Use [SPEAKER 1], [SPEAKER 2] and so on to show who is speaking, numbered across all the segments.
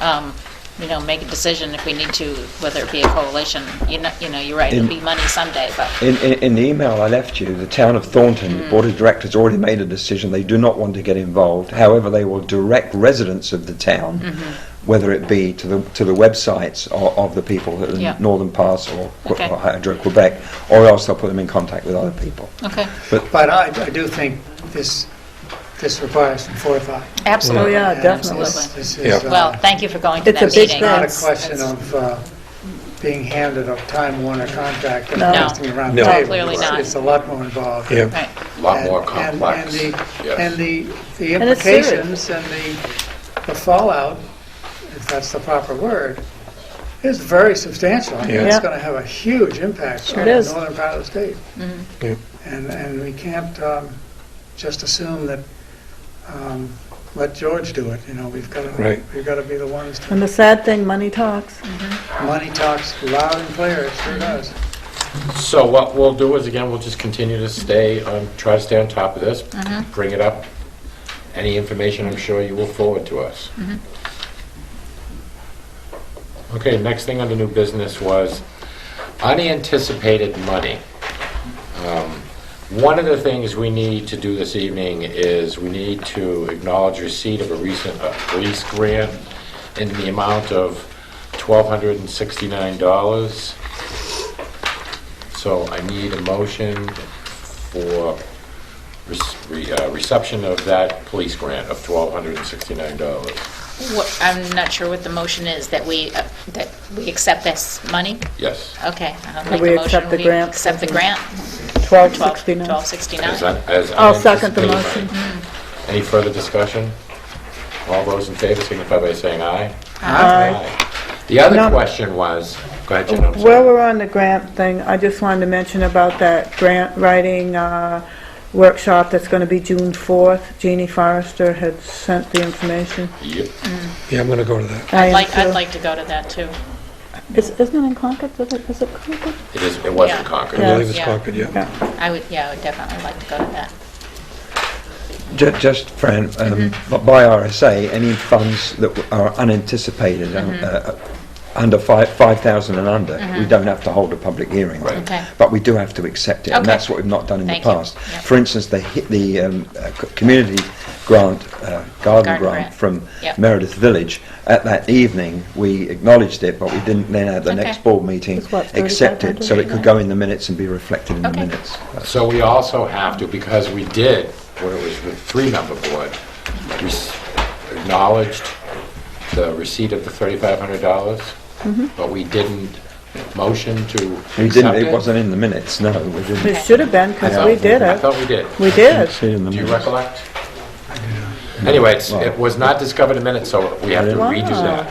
[SPEAKER 1] um, you know, make a decision if we need to, whether it be a coalition. You know, you know, you're right, it'll be money someday, but
[SPEAKER 2] In, in, in the email I left you, the town of Thornton the board of
[SPEAKER 1] Hmm.
[SPEAKER 2] directors already made a decision they do not want to get involved. However, they will direct residents of the town,
[SPEAKER 1] Mm-hmm.
[SPEAKER 2] whether it be to the to the websites of, of the people at
[SPEAKER 1] Yeah.
[SPEAKER 2] Northern Pass or, Que-
[SPEAKER 1] Okay.
[SPEAKER 2] or Hydro Quebec, or else they'll put them in contact with other people.
[SPEAKER 1] okay,
[SPEAKER 3] But I, I do think this, this requires some forethought.
[SPEAKER 4] Oh,
[SPEAKER 1] absolutely.
[SPEAKER 4] yeah,
[SPEAKER 3] And
[SPEAKER 4] definitely.
[SPEAKER 3] this- this is,
[SPEAKER 5] Yeah.
[SPEAKER 3] uh,
[SPEAKER 1] Well, thank you for going to
[SPEAKER 4] It's
[SPEAKER 1] that
[SPEAKER 4] a
[SPEAKER 1] meeting.
[SPEAKER 3] It's
[SPEAKER 4] big
[SPEAKER 3] not a
[SPEAKER 4] Thanks.
[SPEAKER 3] question of uh, being handed a Time Warner contract and
[SPEAKER 4] No.
[SPEAKER 3] passing around the
[SPEAKER 5] No.
[SPEAKER 3] table.
[SPEAKER 1] Clearly
[SPEAKER 3] It's-
[SPEAKER 1] not.
[SPEAKER 3] It's a lot more involved.
[SPEAKER 5] Yeah.
[SPEAKER 1] Right,
[SPEAKER 6] A lot
[SPEAKER 3] And-
[SPEAKER 6] more
[SPEAKER 3] and-
[SPEAKER 6] complex.
[SPEAKER 3] And the,
[SPEAKER 6] Yes.
[SPEAKER 3] and the the
[SPEAKER 4] And it's serious.
[SPEAKER 3] implications and the the fallout, if that's the proper word, is very substantial. I mean,
[SPEAKER 5] Yeah.
[SPEAKER 3] It's
[SPEAKER 4] Yeah.
[SPEAKER 3] going to have a huge impact
[SPEAKER 4] Sure
[SPEAKER 3] on
[SPEAKER 4] it
[SPEAKER 3] the
[SPEAKER 4] is. Mm-hmm.
[SPEAKER 3] northern part of the state.
[SPEAKER 5] Yeah.
[SPEAKER 3] And, and we can't um, just assume that, um, let George do it, you know, we've got to,
[SPEAKER 5] Right.
[SPEAKER 3] we've got to be the ones
[SPEAKER 4] And
[SPEAKER 3] to,
[SPEAKER 4] the sad thing, money talks.
[SPEAKER 3] money talks loud and clear, it sure does.
[SPEAKER 6] So what we'll do is, again, we'll just continue to stay, on try to stay on top of this,
[SPEAKER 3] Mm-hmm.
[SPEAKER 6] bring it up. Any information, I'm sure you will forward to us.
[SPEAKER 3] Mm-hmm.
[SPEAKER 6] Okay, next thing under new business was unanticipated money. Um, One of the things we need to do this evening is we need to acknowledge receipt of a recent uh, police grant in the amount of $1,269. So I need a motion for rec- re- uh, reception of that police grant of $1,269.
[SPEAKER 1] What- I'm not sure what the motion is, that we, uh, that we accept this money?
[SPEAKER 6] Yes.
[SPEAKER 1] Okay, I'll make a
[SPEAKER 4] we
[SPEAKER 1] motion.
[SPEAKER 4] accept the
[SPEAKER 1] we
[SPEAKER 4] grant?
[SPEAKER 1] Accept the grant,
[SPEAKER 4] 1269.
[SPEAKER 1] 1269.
[SPEAKER 6] As un- as
[SPEAKER 4] I'll second the
[SPEAKER 6] unanticipated.
[SPEAKER 4] motion.
[SPEAKER 6] Any further discussion? All those in favor signify by saying aye. Aye. The
[SPEAKER 4] No.
[SPEAKER 6] other question was, go ahead, Jen, I'm sorry.
[SPEAKER 4] While we're on the grant thing, I just wanted to mention about that grant writing uh, workshop that's going to be June 4th. Jeannie Forrester had sent the information.
[SPEAKER 6] Yep.
[SPEAKER 5] Yeah, I'm going to go to that.
[SPEAKER 4] I
[SPEAKER 1] I'd
[SPEAKER 4] am
[SPEAKER 1] like, I'd
[SPEAKER 4] too.
[SPEAKER 1] like to go to that, too.
[SPEAKER 4] Is- Isn't it in Concord? Is it, is it Concord?
[SPEAKER 6] It is, it was
[SPEAKER 1] Yeah.
[SPEAKER 6] in Concord.
[SPEAKER 5] I
[SPEAKER 4] Yeah.
[SPEAKER 5] believe it's
[SPEAKER 1] Yeah.
[SPEAKER 5] Concord, yeah.
[SPEAKER 4] Yeah.
[SPEAKER 1] I would, yeah, I would definitely like to go to that.
[SPEAKER 2] Ju- Just, Fran, um,
[SPEAKER 1] Mm-hmm.
[SPEAKER 2] b- by RSA, any funds that w- are unanticipated, um,
[SPEAKER 1] Mm-hmm.
[SPEAKER 2] uh, under five, 5,000 and under, we don't have to hold a public hearing. on it.
[SPEAKER 1] Okay.
[SPEAKER 2] But we do have to accept it, and
[SPEAKER 1] Okay.
[SPEAKER 2] that's what we've not done in the
[SPEAKER 1] Thank you.
[SPEAKER 2] past.
[SPEAKER 1] Yeah.
[SPEAKER 2] For instance, the, hi- the um, uh, c- community grant, uh, garden
[SPEAKER 1] Garden
[SPEAKER 2] grant
[SPEAKER 1] grant.
[SPEAKER 2] from
[SPEAKER 1] Yeah.
[SPEAKER 2] Meredith Village, at that evening, we acknowledged it, but we didn't then at the
[SPEAKER 1] Okay.
[SPEAKER 2] next board meeting
[SPEAKER 4] It's what,
[SPEAKER 2] accept it, so it could
[SPEAKER 4] 3,500?
[SPEAKER 2] go in the minutes and be reflected in the
[SPEAKER 1] Okay.
[SPEAKER 2] minutes.
[SPEAKER 6] So we also have to, because we did, when it was the three-member board, we s- acknowledged the receipt of the
[SPEAKER 4] Mm-hmm.
[SPEAKER 6] $3,500, but we didn't motion to
[SPEAKER 2] We didn't,
[SPEAKER 6] accept
[SPEAKER 2] it wasn't in the minutes, no, we didn't.
[SPEAKER 4] It should have been,
[SPEAKER 6] I
[SPEAKER 4] because
[SPEAKER 6] thought-
[SPEAKER 4] we did
[SPEAKER 6] I
[SPEAKER 4] it.
[SPEAKER 6] thought we did.
[SPEAKER 4] We did.
[SPEAKER 2] See in the
[SPEAKER 6] Do you
[SPEAKER 2] minutes.
[SPEAKER 6] recollect? Anyway, it's- it was not discovered in minutes, so we have to
[SPEAKER 4] Wow.
[SPEAKER 6] redo that.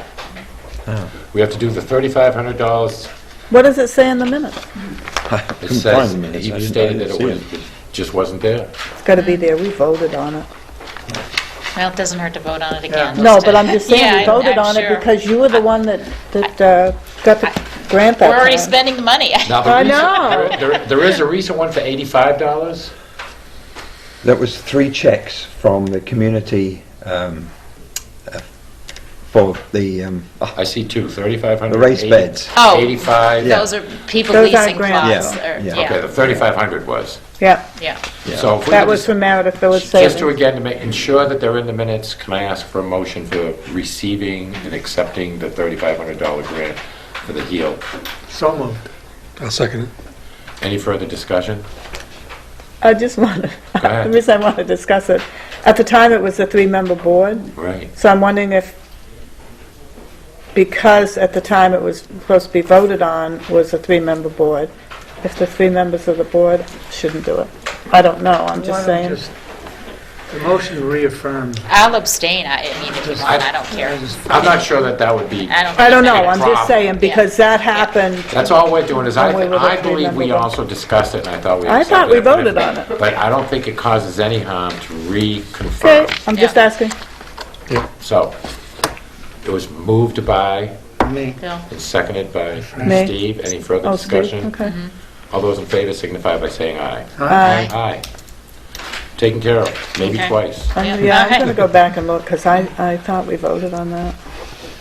[SPEAKER 2] Oh.
[SPEAKER 6] We have to do the $3,500
[SPEAKER 4] What does it say in the minutes?
[SPEAKER 6] It
[SPEAKER 2] Couldn't find
[SPEAKER 6] says,
[SPEAKER 2] the minutes. I
[SPEAKER 6] you
[SPEAKER 2] didn't- I
[SPEAKER 6] stated that
[SPEAKER 2] didn't
[SPEAKER 6] it
[SPEAKER 2] see
[SPEAKER 6] was, it just wasn't there.
[SPEAKER 4] It's got to
[SPEAKER 1] Mm.
[SPEAKER 4] be there. We voted on it.
[SPEAKER 1] Well, it doesn't hurt to vote on it
[SPEAKER 3] Yeah.
[SPEAKER 1] again.
[SPEAKER 4] No,
[SPEAKER 1] just
[SPEAKER 4] but
[SPEAKER 1] to-
[SPEAKER 4] I'm just saying,
[SPEAKER 1] Yeah,
[SPEAKER 4] we
[SPEAKER 1] I'm-
[SPEAKER 4] voted
[SPEAKER 1] I'm
[SPEAKER 4] on it
[SPEAKER 1] sure.
[SPEAKER 4] because you were the one that, that uh, got the grant that
[SPEAKER 1] We're already
[SPEAKER 4] time.
[SPEAKER 1] spending the money.
[SPEAKER 6] Now, the
[SPEAKER 4] I
[SPEAKER 6] recent-
[SPEAKER 4] know.
[SPEAKER 6] there- there- There is a recent one for $85.
[SPEAKER 2] That was three checks from the community um, uh, for the, um, oh,
[SPEAKER 6] I see two, 3,500.
[SPEAKER 2] The raised
[SPEAKER 6] 80
[SPEAKER 2] beds.
[SPEAKER 1] Oh.
[SPEAKER 6] 85.
[SPEAKER 2] Yeah.
[SPEAKER 1] Those are people
[SPEAKER 4] Those are
[SPEAKER 1] leasing
[SPEAKER 4] grants.
[SPEAKER 1] clause,
[SPEAKER 2] Yeah,
[SPEAKER 1] or,
[SPEAKER 2] yeah.
[SPEAKER 6] Okay,
[SPEAKER 1] yeah,
[SPEAKER 6] the 3,500 was.
[SPEAKER 4] Yeah,
[SPEAKER 1] yeah.
[SPEAKER 6] So if we
[SPEAKER 4] that
[SPEAKER 6] could
[SPEAKER 4] was
[SPEAKER 6] just-
[SPEAKER 4] from Meredith Village
[SPEAKER 6] Just to
[SPEAKER 4] Savings.
[SPEAKER 6] again, to make, ensure that they're in the minutes, can I ask for a motion for receiving and accepting the $3,500 grant for the HEAL?
[SPEAKER 3] So moved.
[SPEAKER 5] I'll second it.
[SPEAKER 6] Any further discussion?
[SPEAKER 4] I just wanted,
[SPEAKER 6] Go ahead.
[SPEAKER 4] the reason I want to discuss it, at the time, it was a three-member board,
[SPEAKER 6] Right.
[SPEAKER 4] so I'm wondering if, because at the time it was supposed to be voted on, was a three-member board, if the three members of the board shouldn't do it. I don't know, I'm
[SPEAKER 3] Why
[SPEAKER 4] just
[SPEAKER 3] don't
[SPEAKER 4] saying.
[SPEAKER 3] The motion reaffirmed.
[SPEAKER 1] I'll abstain, I I mean, if you want, I don't care.
[SPEAKER 6] I'm not sure that that would be.
[SPEAKER 1] I don't.
[SPEAKER 4] I don't know,
[SPEAKER 1] think
[SPEAKER 4] I'm
[SPEAKER 1] that's-
[SPEAKER 4] just saying, because that happened,
[SPEAKER 6] That's all we're doing, is I,
[SPEAKER 4] And we would
[SPEAKER 6] I
[SPEAKER 4] have to
[SPEAKER 6] believe we
[SPEAKER 4] remember.
[SPEAKER 6] also discussed it, and I thought we
[SPEAKER 4] I thought
[SPEAKER 6] accepted
[SPEAKER 4] we
[SPEAKER 6] but
[SPEAKER 4] voted on it.
[SPEAKER 6] But I don't think it causes any harm to
[SPEAKER 4] okay,
[SPEAKER 6] reconfirm.
[SPEAKER 4] I'm just
[SPEAKER 1] Yeah.
[SPEAKER 4] asking.
[SPEAKER 6] So, it was moved by
[SPEAKER 3] Me.
[SPEAKER 1] Bill,
[SPEAKER 6] and seconded by
[SPEAKER 4] Me.
[SPEAKER 6] Steve. Any further
[SPEAKER 4] Oh, Steve,
[SPEAKER 6] discussion?
[SPEAKER 4] Okay.
[SPEAKER 6] All those in favor signify by saying aye.
[SPEAKER 4] Aye.
[SPEAKER 6] Aye. Taken care of, maybe
[SPEAKER 1] Okay.
[SPEAKER 6] twice.
[SPEAKER 4] Um,
[SPEAKER 1] Yeah.
[SPEAKER 4] Yeah, I'm
[SPEAKER 1] Okay.
[SPEAKER 4] going to go back and look, because I, I thought we voted on that.